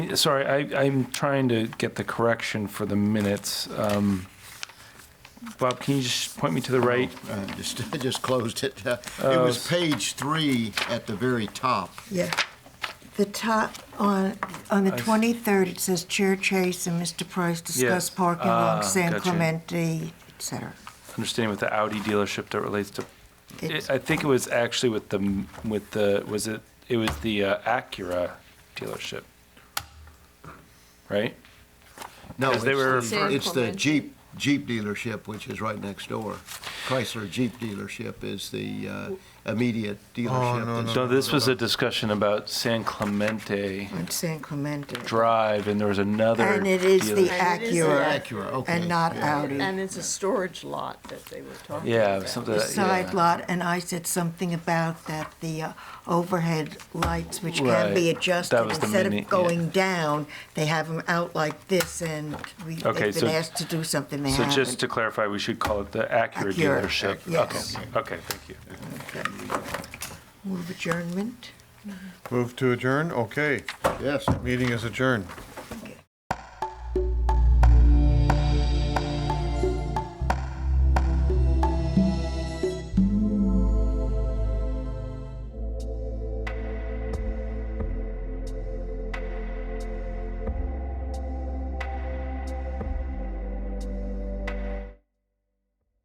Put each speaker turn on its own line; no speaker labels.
I, sorry, I, I'm trying to get the correction for the minutes. Um, Bob, can you just point me to the
Oh.
right?
Uh, Just, I just closed it. Uh, It
Oh,
was page three at the very top.
Yeah. The top, on, on the 23rd, it says Chair Chase and Mr. Price discuss
Yeah.
parking
Ah,
along San
gotcha.
Clemente, et cetera.
Understanding with the Audi dealership that relates to,
It's-
I think it was actually with the, with the, was it, it was the uh, Acura dealership, right?
No,
Because they were
it's the-
refer-
It's the
Same
Jeep, Jeep dealership, which is right next door. Chrysler Jeep dealership is the uh, immediate dealership. that's-
Oh, No, this was a discussion about San Clemente
On San Clemente.
Drive, and there was another.
And it is the
dealership.
And it is
Acura.
Acura, okay.
And not
yeah.
Audi.
And it's a storage lot that they were talking
Yeah,
about.
something
The
like-
side
yeah.
lot, and I said something about that, the uh, overhead lights, which can be
Right. That
adjusted.
was the
Instead
mini- yeah.
of going down, they have them out like this, and we-
Okay,
they've
so-
been asked to do something they
So
haven't.
just to clarify, we should call it the Acura
Acura,
dealership.
yes.
Okay, okay, thank you.
Move adjournment?
Move to adjourn? Okay,
Yes.
meeting is adjourned.